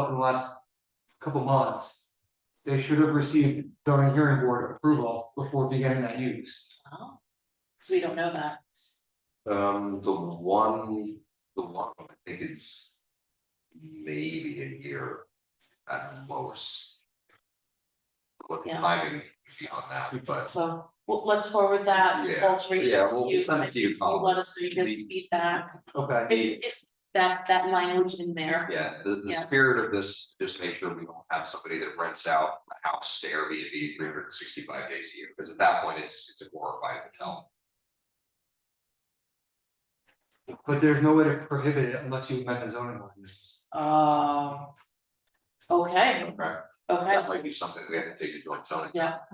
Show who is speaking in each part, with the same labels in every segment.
Speaker 1: up in the last couple months. They should have received zoning hearing board approval before beginning that use.
Speaker 2: Oh, So we don't know that.
Speaker 3: Um, the one, the one I think is maybe a year at most. What the
Speaker 2: Yeah.
Speaker 3: timing is beyond that, but
Speaker 2: So well, let's forward that,
Speaker 3: Yeah,
Speaker 2: let's read
Speaker 3: yeah,
Speaker 2: this
Speaker 3: we'll-
Speaker 2: to
Speaker 3: we'll
Speaker 2: you,
Speaker 3: send it to you,
Speaker 2: and you'll Let us read this
Speaker 3: Colin.
Speaker 2: feedback,
Speaker 1: Okay,
Speaker 2: if if that that language in there.
Speaker 3: yeah, the the
Speaker 2: Yeah.
Speaker 3: spirit of this, just make sure we don't have somebody that rents out a house to Airbnb three hundred and sixty five days a year, because at that point, it's it's a glorified hotel.
Speaker 1: but there's no way to prohibit it unless you amend the zoning ordinance.
Speaker 2: Oh. Okay,
Speaker 3: Okay,
Speaker 2: okay,
Speaker 3: that might be something we have to take to joint zoning.
Speaker 2: yeah.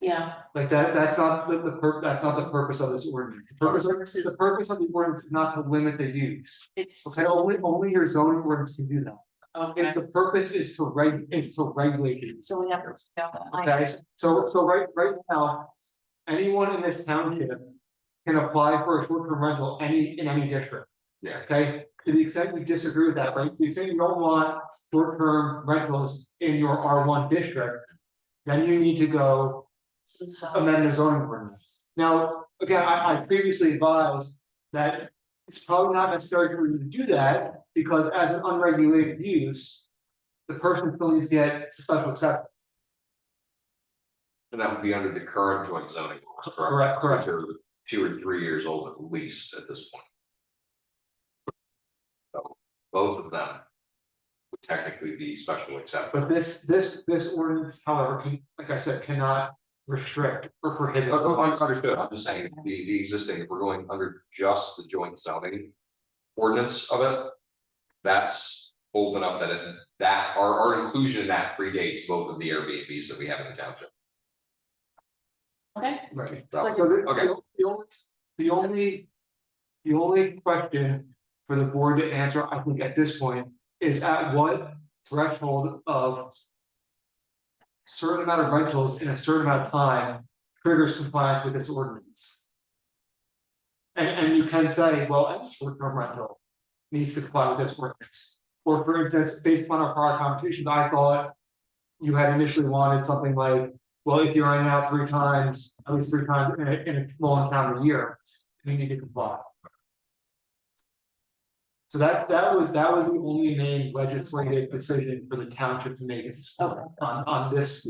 Speaker 2: Yeah,
Speaker 1: Like that, that's not the the pur- that's not the purpose of this ordinance. The purpose of, the purpose of the ordinance is not to limit the use.
Speaker 2: it's
Speaker 1: Okay, only only your zoning ordinance can do that. If
Speaker 2: okay,
Speaker 1: the purpose is to reg, is to regulate it.
Speaker 2: so we have to spell that. line.
Speaker 1: Okay, so so right right now, anyone in this township. Can apply for a short term rental any in any district.
Speaker 3: Yeah.
Speaker 1: Okay, to the extent you disagree with that, right, to the extent you don't want short term rentals in your R one district. Then you need to go
Speaker 2: So- so-
Speaker 1: amend the zoning ordinance. Now, again, I I previously advised that it's probably not necessary for you to do that because as an unregulated use. The person still needs to get special exception.
Speaker 3: And that would be under the current joint zoning laws,
Speaker 1: Correct,
Speaker 3: correct?
Speaker 1: correct.
Speaker 3: Which are Two or three years old at least at this point. So both of them. Would technically be special exception.
Speaker 1: But this, this, this ordinance, however, can, like I said, cannot restrict or prohibit.
Speaker 3: Oh, oh, I understood, I'm just saying, the the existing, if we're going under just the joint zoning. Ordinance of it. That's old enough that it, that our our inclusion in that predates both of the Airbnbs that we have in the township.
Speaker 2: Okay,
Speaker 1: Right.
Speaker 3: So-
Speaker 1: So the,
Speaker 3: Okay.
Speaker 1: the- the only, the only. The only question for the board to answer, I think at this point, is at what threshold of. Certain amount of rentals in a certain amount of time triggers compliance with this ordinance. And and you can say, well, any short term rental needs to comply with this ordinance. Or for instance, based upon our prior conversations, I thought. You had initially wanted something like well, if you're in and out three times, at least three times in a in a long calendar year, you need to comply. So that that was, that was the only main legislative decision for the township to make is
Speaker 2: Okay.
Speaker 1: on on this.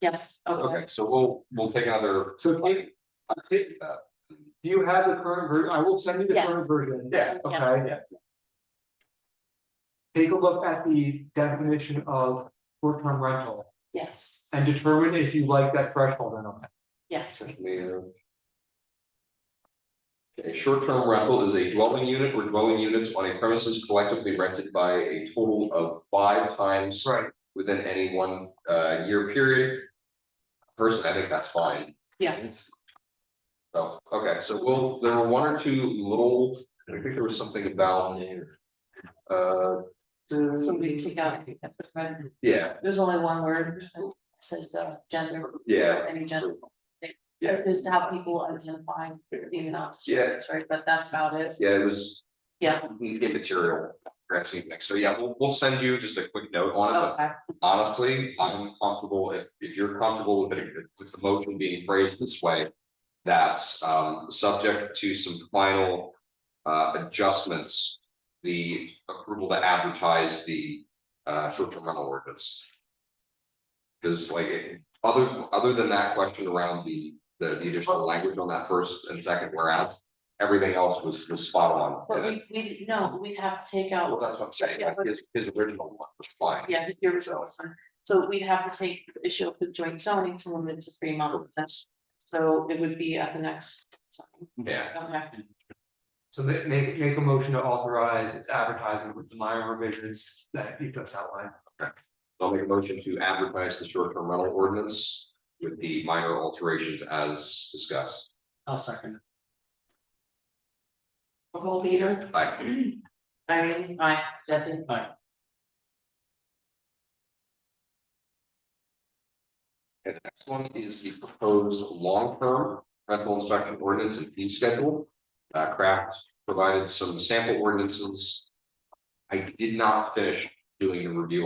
Speaker 2: yes, okay,
Speaker 3: Okay, so we'll, we'll take another.
Speaker 1: So take, I take-
Speaker 3: uh,
Speaker 1: do you have the current version? I will send you the current
Speaker 2: Yes.
Speaker 1: version.
Speaker 3: Yeah.
Speaker 1: Okay. Take a look at the definition of short-term rental
Speaker 2: yes,
Speaker 1: and determine if you like that threshold or not.
Speaker 2: yes,
Speaker 3: Mayor. Okay, short-term rental is a dwelling unit or dwelling units on a premises collectively rented by a total of five times
Speaker 1: Right.
Speaker 3: within any one uh year period. Person, I think that's fine.
Speaker 2: Yeah.
Speaker 3: So, okay, so we'll, there were one or two little, I think there was something about. Uh,
Speaker 2: so we take out.
Speaker 3: yeah,
Speaker 2: There's only one word, I said uh, gender,
Speaker 3: yeah,
Speaker 2: any gender.
Speaker 3: Yeah.
Speaker 2: Is how people identify, even not discriminates, right, but that's about it,
Speaker 3: yeah, it was
Speaker 2: yeah,
Speaker 3: immaterial. Grand scheme of things. so yeah, we'll we'll send you just a quick note on it, but
Speaker 2: okay,
Speaker 3: honestly, I'm comfortable, if if you're comfortable with it, with the motion being phrased this way. That's um subject to some final uh adjustments. The approval to advertise the uh short-term rental ordinance. Because like, it- other other than that question around the the the additional language on that first and second whereas. Everything else was was spot on.
Speaker 2: but we we, no, we'd have to take
Speaker 3: Well,
Speaker 2: out,
Speaker 3: that's what I'm saying, like his his original one was fine.
Speaker 2: yeah, your results. So we'd have to take the issue of the joint zoning to limit it to three months, that's, so it would be at the next. zoning.
Speaker 3: Yeah,
Speaker 2: Okay,
Speaker 1: So ma- make make a motion to authorize its advertising with the minor revisions that you just outlined.
Speaker 3: I'll make a motion to advertise the short-term rental ordinance with the minor alterations as discussed.
Speaker 1: I'll second.
Speaker 2: Nicole Peter,
Speaker 3: Aye.
Speaker 2: Irene, aye, Jesse.
Speaker 3: And the next one is the proposed long-term rental inspection ordinance and fee schedule. Uh, Kraft provided some sample ordinances. I did not finish doing a review